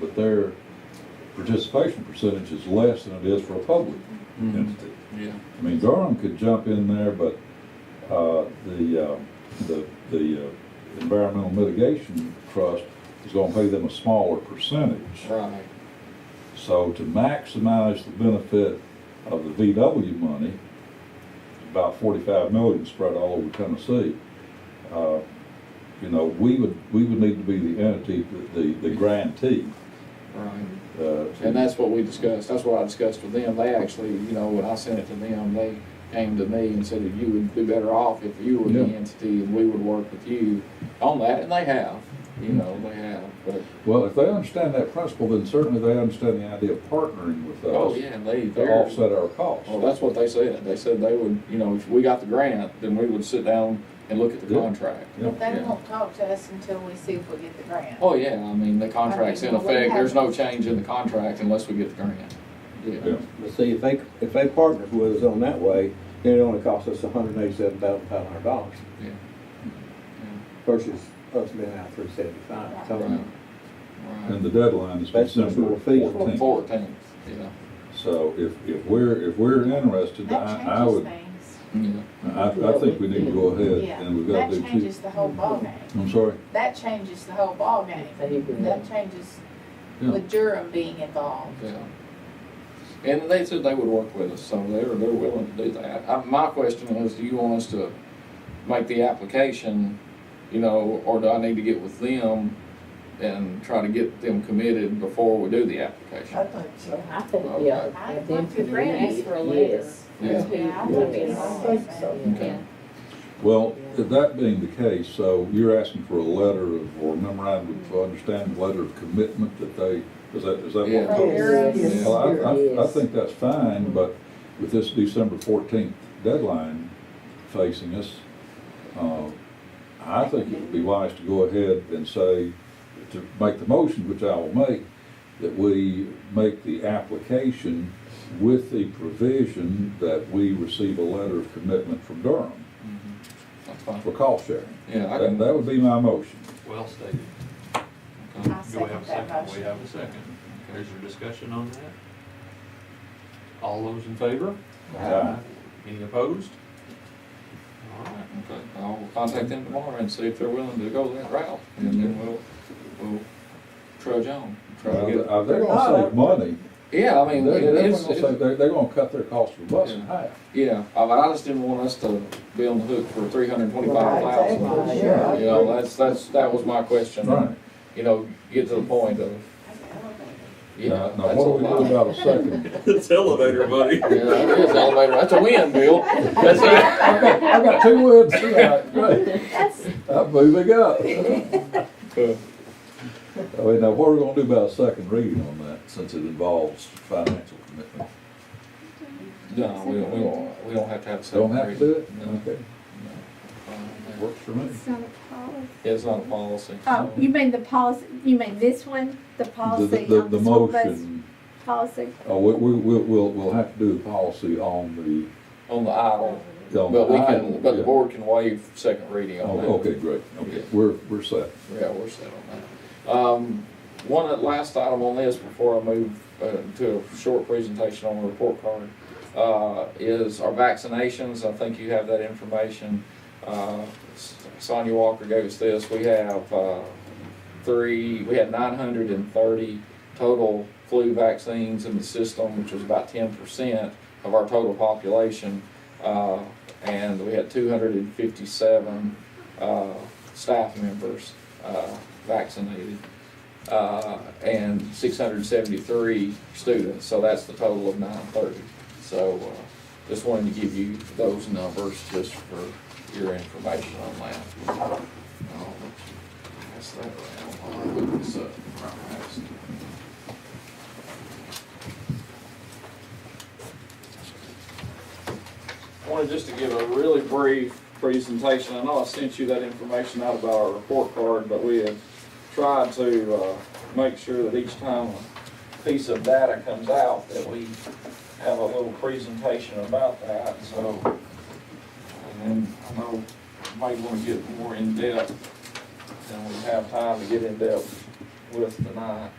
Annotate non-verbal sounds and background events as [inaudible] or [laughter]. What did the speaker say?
but their participation percentage is less than it is for a public Mm-hmm. entity. Yeah. I mean, Durham could jump in there, but, uh, the, uh, the, the uh, Environmental Mitigation Trust is gonna pay them a smaller percentage. Right. So to maximize the benefit of the VW money, about forty-five million spread all over Tennessee, uh, you know, we would, we would need to be the entity, the, the grantee. Right. uh, to- And that's what we discussed, that's what I discussed with them, they actually, you know, when I sent it to them, they came to me and said that you would be better off if you were the Yeah. entity and we would work with you on that, and they have, you know, they have, but, Well, if they understand that principle, then certainly they understand the idea of partnering with oh, us yeah, Oh, and they, to they're, offset our costs. well, that's what they said, they said they would, you know, if we got the grant, then we would sit down and look at the Yeah. contract. Yeah. But they Yeah. won't talk to us until we see if we get the grant. Oh, yeah, I mean, the contract's in well, we effect, have- there's no change in the contract unless we get the grant, Yeah. yeah. But see, if they, if they partners with us on that way, then it only costs us hundred and eighty-seven thousand five hundred dollars Yeah. versus us being out three seventy-five. Right. So Right. And the deadline is That's the December sort of fee. fourteenth. Fourteenth, yeah, So if, if we're, if we're interested, That I, I changes would, things. yeah. I, I think we need to go Yeah, ahead and we've got to that do two. changes the whole ballgame. I'm sorry? That changes the whole ballgame. That changes Yeah. with Durham being involved. Yeah. And they said they would work with us, so they're, they're willing to do that. I, my question is, do you want us to make the application, you know, or do I need to get with them and try to get them committed before we do the application? think so. I think, yeah. I if think they the grant is ask for a letter. yes. Yeah. Yeah, I Yeah. think I think so. Yeah. Well, that being the case, so you're asking for a letter of, or memorandum of understanding, letter of commitment that they, is that, is that what? Yeah. From Durham, Yes. Well, I, I, I Yes. think that's fine, but with this December fourteenth deadline facing us, uh, I think it would be wise to go ahead and say, to make the motion, which I will make, that we make the application with the provision that we receive a letter of commitment from Durham That's fine. for cost sharing. Yeah, I That, can, that would be my motion. Well stated. okay. I Do we have second a that second? We motion. have a second. There's your discussion on that. All those in favor? Aye. Any opposed? All right. Okay. I'll contact them tomorrow and see if they're willing to go that route, and then we'll, we'll trudge on, try to get. Uh, They're gonna save money. Yeah, I They're, mean, it they're is, gonna save, they're, they're gonna cut their cost for bus in Yeah. half. yeah, I I just didn't want us to be on the hook for three hundred and twenty-five thousand. Right, sure. You know, that's, that's, that was my question. Right. You know, get to the point of, you Now, know, now that's a what do we do about lot. a [laughs] second? [laughs] It's elevator buddy. Yeah, it is elevator, that's a win, Bill. That's a, I've got, I've got two words [laughs] tonight, great. That's, I'm moving up. I mean, now what are we gonna do about a second reading on that, since it involves financial commitment? no, we don't, we don't, we don't have to have a second Don't have to do it? reading. Okay, No. works for me. It's not a policy. It's not a policy. Oh, you mean the policy, you mean this one, The- the the- policy the- on The the school bus motion, policy? uh, we, we, we'll, we'll, we'll have to do the policy on On the idle, the, on the. but we can, item, but the yeah. board can waive second reading on that. Oh, Okay, great, okay, we're, we're set. Yeah, we're set on that. Um, one at- last item on this before I move uh, to a short presentation on the report card, uh, is our vaccinations. I think you have that information. Uh, S- Sonia Walker gave us this. We have, uh, three, we had nine hundred and thirty total flu vaccines in the system, which was about ten percent of our total population. Uh, and we had two hundred and fifty-seven, uh, staff members, uh, vaccinated. Uh, and six hundred and seventy-three students, so that's the total of nine thirty. So, uh, just wanted to give you those numbers just for your information on that. Uh, That's that. I'll look this up. I wanted just to give a really brief presentation. I know I sent you that information out about our report card, but we have tried to uh, make sure that each time a piece of data comes out, that we have a little presentation about that, so. And then I know you might want to get more in-depth than we have time to get in-depth with tonight.